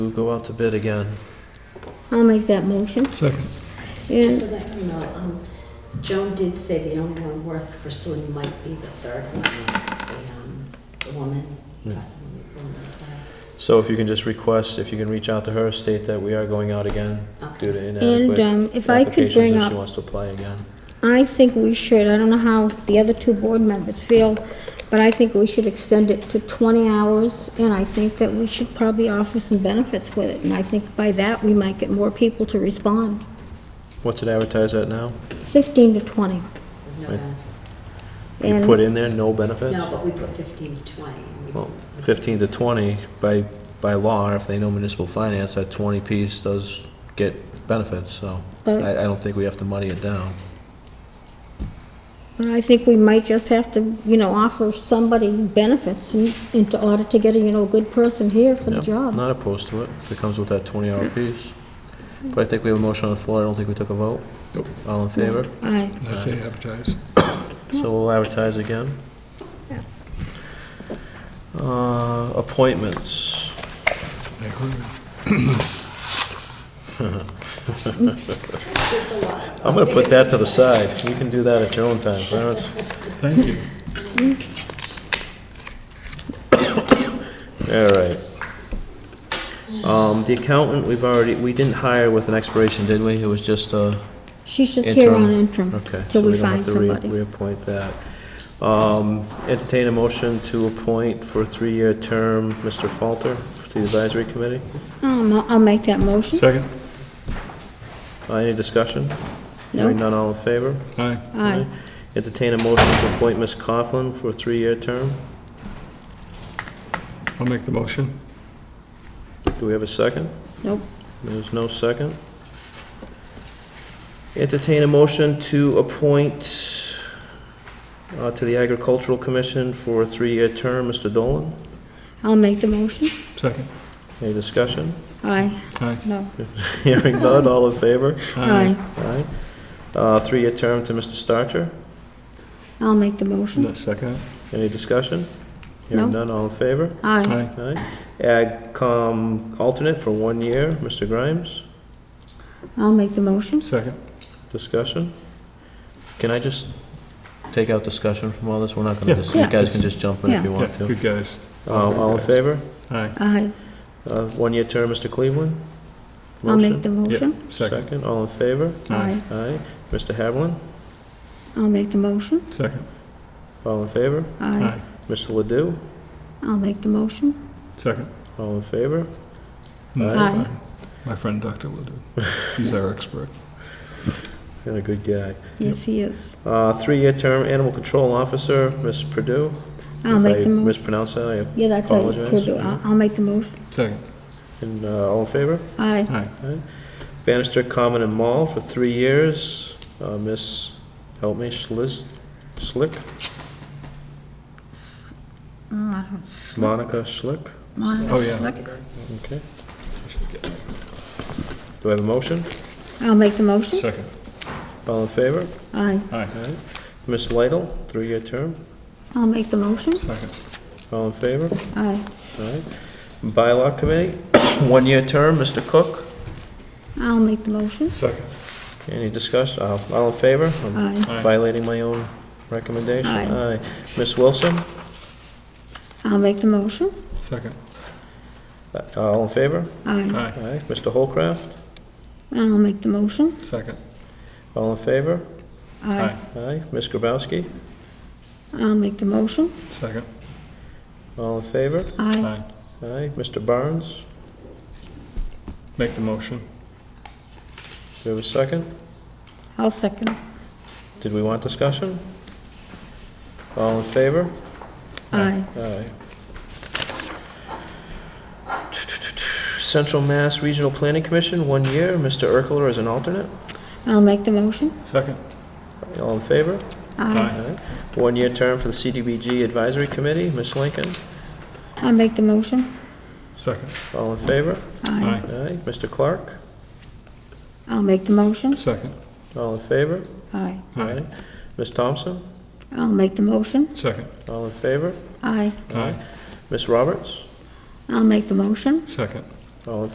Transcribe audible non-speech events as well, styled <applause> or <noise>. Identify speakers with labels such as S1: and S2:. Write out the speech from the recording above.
S1: We'll go out to bid again.
S2: I'll make that motion.
S3: Second.
S2: And
S4: So that you know, um, Joan did say the only one worth pursuing might be the third one, the, um, the woman. um,
S1: So if you can just request, if you can reach out to her, state that we are going out again due to
S2: And
S1: inadequate
S2: um, if I could
S1: applications
S2: bring
S1: and she
S2: up,
S1: wants to apply again.
S2: I think we should, I don't know how the other two board members feel, but I think we should extend it to 20 hours, and I think that we should probably offer some benefits with it, and I think by that, we might get more people to respond.
S1: What's it advertised at now?
S2: 15 to 20.
S4: No,
S1: Right. You
S2: And
S1: put in there, no benefits?
S4: No, but we put fifteen to twenty. and we-
S1: Well, 15 to 20, by, by law, if they know municipal finance, that 20 piece does get benefits, so I,
S2: But
S1: I don't think we have to muddy it down.
S2: but I think we might just have to, you know, offer somebody benefits in in to- order to get a, you know, good person here for the
S1: Yep,
S2: job. Mm-hmm.
S1: Not opposed to it, if it comes with that 20-hour piece. But I think we have a motion on the floor, I don't think we took a vote.
S3: Nope.
S1: All in favor?
S2: Aye.
S3: I say advertise.
S1: So we'll advertise again.
S2: Yeah.
S1: Uh, Appointments.
S3: I agree.
S4: It's a lot.
S1: I'm gonna put that to the side. You can do that at your own time, Clarence.
S3: Thank you.
S1: All right. Um, The accountant, we've already, we didn't hire with an expiration, did we? It was just uh
S2: She's just here on
S1: Interim.
S2: interim
S1: Okay. so
S2: till we
S1: don't have
S2: find
S1: to re-
S2: somebody.
S1: Reappoint that. Um, Entertain a motion to appoint for a three-year term Mr. Falter to the advisory committee.
S2: Um, I'll I'll make that motion.
S3: Second.
S1: Uh, Any discussion?
S2: No.
S1: Hearing none, all in favor?
S3: Aye.
S2: Aye.
S1: Entertain a motion to appoint Ms. Coughlin for a three-year term.
S3: I'll make the motion.
S1: Do we have a second?
S2: Nope.
S1: There's no second. Entertain a motion to appoint uh, to the Agricultural Commission for a three-year term, Mr. Dolan.
S2: I'll make the motion.
S3: Second.
S1: Any discussion? <laughs>
S2: Aye.
S3: Aye.
S2: No.
S1: Hearing none, all in favor? Aye. Uh, Three-year term to Mr. Starcher.
S2: I'll make the motion.
S3: No, Second.
S1: Any discussion? Hearing
S2: No.
S1: none, all in favor?
S2: Aye.
S3: Aye.
S1: Aye. AgCom alternate for one year, Mr. Grimes.
S2: I'll make the motion.
S3: Second.
S1: Discussion? Can I just take out discussion from all this? We're not
S3: Yeah.
S1: gonna, dis- you
S2: Yeah.
S1: guys can just jump in if
S2: Yeah.
S1: you want
S3: Yeah,
S1: to.
S3: good guys.
S1: Uh, All in favor?
S3: Aye.
S2: Aye.
S1: Uh, One-year term, Mr. Cleveland?
S2: I'll make the
S3: Yep.
S2: motion.
S3: Second.
S1: Second, all in favor?
S3: Aye.
S1: Aye. Mr. Havlin?
S2: I'll make the motion.
S3: Second.
S1: All in favor?
S2: Aye.
S3: Aye.
S1: Mr. Ledoux?
S2: I'll make the motion.
S3: Second.
S1: All in favor?
S3: No, that's
S2: Aye.
S3: fine. My friend Dr. <laughs> Ledoux. He's our expert.
S1: And a good guy.
S2: Yes, he is.
S1: Uh, Three-year term, Animal Control Officer, Ms. Purdue?
S2: I'll make the
S1: If I
S2: motion.
S1: mispronounce that,
S2: Yeah, that's how you
S1: apologize.
S2: could do it. I'll I'll make the motion.
S3: Second.
S1: I- and uh, all in favor?
S2: Aye.
S3: Aye.
S1: Bannister Common and Mall for three years, Uh, Miss, help me, Schliz, Schlick? Monica Schlick,
S3: Oh, yeah.
S1: okay. Do I have a motion?
S2: I'll make the motion.
S3: Second.
S1: All in favor?
S2: Aye.
S3: Aye.
S1: Miss Lidle, three-year term,
S2: I'll make the motion.
S3: Second.
S1: all in favor?
S2: Aye.
S1: All right. Bylaw Committee, <coughs> one-year term, Mr. Cook,
S2: I'll make the motion.
S3: Second.
S1: any discussion? Uh, All in favor? I'm
S2: Aye.
S3: Aye.
S1: Violating my own recommendation?
S2: Aye.
S1: Miss Wilson,
S2: I'll make the motion.
S3: Second.
S1: Uh, all in favor?
S2: Aye.
S3: Aye.
S1: All right. Mr. Holcraft?
S2: I'll make the motion.
S3: Second.
S1: All in favor?
S2: Aye.
S1: Aye. Ms. Grabowski?
S2: I'll make the motion.
S3: Second.
S1: All in favor?
S2: Aye.
S3: Aye.
S1: Aye. Mr. Barnes?
S3: Make the motion.
S1: Do we have a second?
S2: I'll second.
S1: Did we want discussion? All in favor?
S2: Aye.
S1: Aye. Central Mass Regional Planning Commission, one year. Mr. Urkeler is an alternate.
S2: I'll make the motion.
S3: Second.
S1: All in favor?
S2: Aye.
S1: Aye. One-year term for the CDBG Advisory Committee. Ms. Lincoln?
S2: I'll make the motion.
S3: Second.
S1: All in favor?
S2: Aye.
S3: Aye.
S1: Aye. Mr. Clark?
S2: I'll make the motion.
S3: Second.
S1: All in favor?
S2: Aye.
S3: Aye.
S1: Ms. Thompson?
S2: I'll make the motion.
S3: Second.
S1: All in favor?
S2: Aye.
S3: Aye.
S1: Ms. Roberts?
S2: I'll make the motion.
S3: Second.
S1: All in